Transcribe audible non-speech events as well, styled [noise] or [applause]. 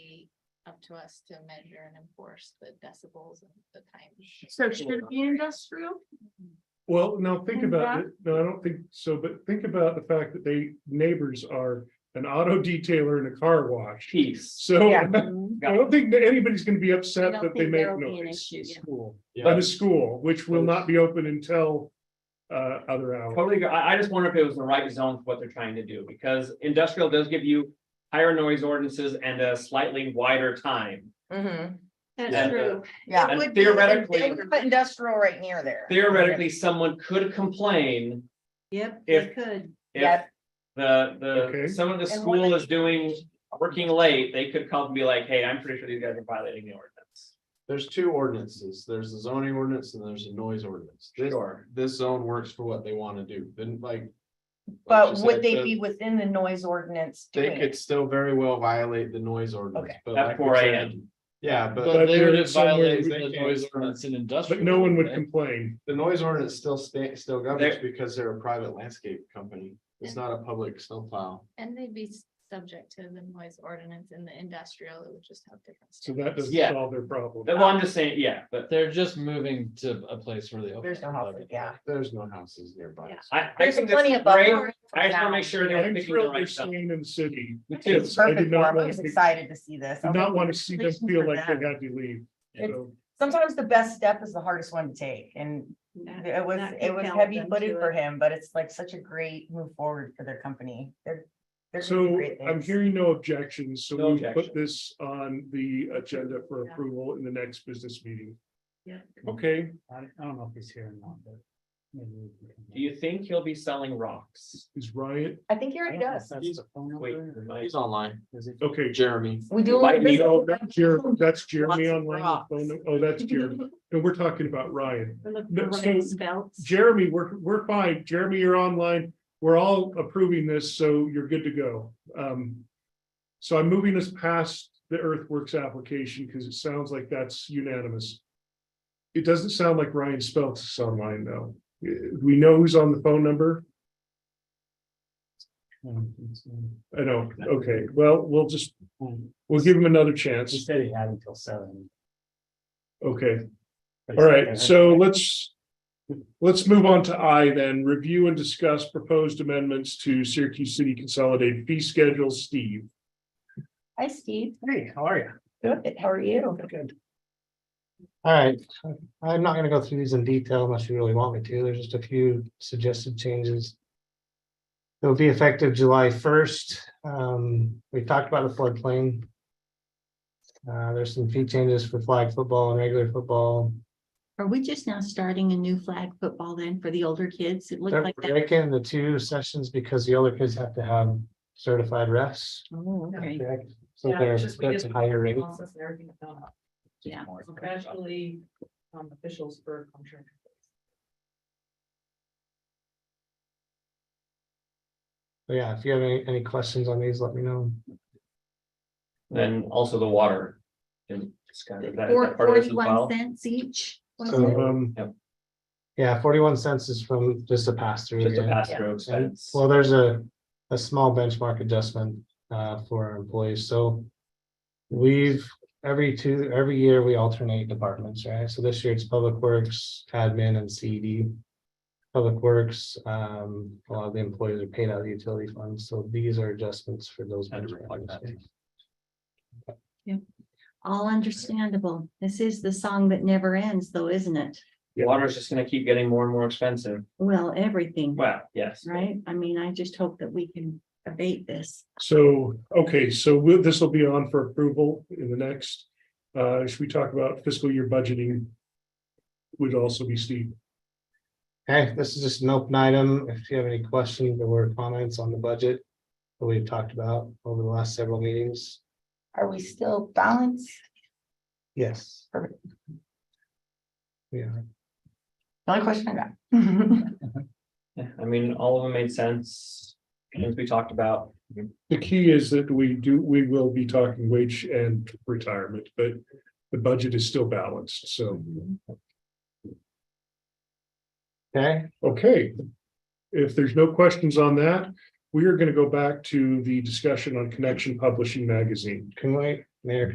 up to us to measure and enforce the decibels and the time. So should it be industrial? Well, now think And about that- it. No, I don't think so, but think about the fact that they neighbors are an auto detailer and a car wash. Peace. So Yeah. I Mm-hmm. don't think that anybody's gonna be upset don't that they think make there'll be an noise. issue, at yeah. school- At Yeah, a school, which will not be open until uh other hours. totally. agree. I, I just wonder if it was the right zone for what they're trying to do, because industrial does give you higher noise ordinances and a slightly wider time. Mm-hmm, Yeah. That's true. yeah. And would be the theoretically- They big- would put industrial right near there. Theoretically, someone could complain Yep, If- they could. if Yeah. the, the, Okay. someone at the And when school they- is doing, working late, they could call and be like, hey, I'm pretty sure these guys are violating the ordinance. There's two ordinances. There's a zoning ordinance and there's a noise ordinance. This, Sure. this zone works for what they want to do, then like. But like you would said, they the- be within the noise ordinance? They doing it? could still very well violate the noise ordinance. Okay. but At like we 4 said- a.m.. Yeah, but But they there would is just somewhere violate we the can- noise ordinance in industrial. But no one would right? complain. the noise ordinance still sta- still governs There- because they're a private landscape company. It's not a public snowplow. And they'd be s- subject to the noise ordinance in the industrial, it would just have different. So that doesn't Yeah. solve their problem. Well, I'm just saying, yeah, but They're just moving to a place where they. open There's no up house, everything. yeah. There's no houses nearby. Yeah. I, I There's think plenty that's of great. buffer. I just wanna make sure they're picking I'm the thrilled they're right stuff. staying in the city. too. It's I did perfect not for 'em. I want was to- excited to see this. Did not want to see them Congratulations feel for like they them. had to leave. It's- So Sometimes the best step is the hardest one to take and it was, it was heavy footed for him, but it's like such a great move forward for their company. They're. they're gonna do So great I'm things. hearing no objections, so No we will put objection. this on the agenda for Yeah. approval in the next business meeting. Yeah. Okay, I I don't know if he's here or not, but. maybe we can come Do you think he'll be selling rocks? is Ryan, I think he back. I already don't know if does. that's the phone Wait, number or- my- He's online. is it- okay. Jeremy. We do. a Might little be bit Oh, of- that's Jer- that's Jeremy Lots of online. rocks. phone num- Oh, that's Jeremy. [laughs] And we're talking about Ryan. We're looking No, for so- right spells. Jeremy, we're, we're fine. Jeremy, you're online. We're all approving this, so you're good to go. Um. So I'm moving us past the earthworks application because it sounds like that's unanimous. It doesn't sound like Ryan Speltz is online though. Uh, We know who's on the phone number. Um, it's, um, I know. Okay, well, we'll just, um, we'll give him another He chance. said he had until seven. Okay. but he All said right, that- so let's, let's move on to I then, review and discuss proposed amendments to Syracuse City Consolidated Fee Schedule, Steve. Hi, Steve. Hey, how are you? Good. How are you? Good. All right, I'm not gonna go through these in detail unless you really want me to. There's just a few suggested changes. It'll be effective July first. Um, we talked about the floodplain. Uh, there's some fee changes for flag football and regular football. Are we just now starting a new flag football then for the older kids? It looked They're like that. breaking the two sessions because the older kids have to have certified refs. Oh, okay. So Yeah, they're, it's just we that's did- higher rate. Yeah. Especially, um, officials for contract. Yeah, if you have any, any questions on these, let me know. Then also the water. And it's kind of- that- is that part of this as well? Forty-one cents each. was So, it? um. Yep. Yeah, forty-one cents is from just a pass through. Just a again. pass through And, expense. well, there's a, a small benchmark adjustment, uh, for our employees, so. We've, every two, every year we alternate departments, right? So this year it's Public Works, Admin and CD. Public Works, um, a lot of the employees are paid out of the utility funds, so these are adjustments for those. Had to reflect that. benchmarks. All understandable. This is the song that never ends though, isn't it? Water is just gonna keep getting more and more expensive. Well, everything, Well, yes. right? I mean, I just hope that we can abate this. So, okay, so we'll, this will be on for approval in the next, uh, should we talk about fiscal year budgeting? Would also be Steve. Okay, this is just an open item. If you have any questions or comments on the budget that we've talked about over the last several meetings, Are we still balanced? yes. Perfect. Yeah, The only question I [laughs] got. Yeah, I mean, all of them made sense. Things we talked about. The key is that we do, we will be talking wage and retirement, but the budget is still balanced, so, okay, okay. If there's no questions on that, we are gonna go back to the discussion on Connection Publishing Magazine. can we, Mayor,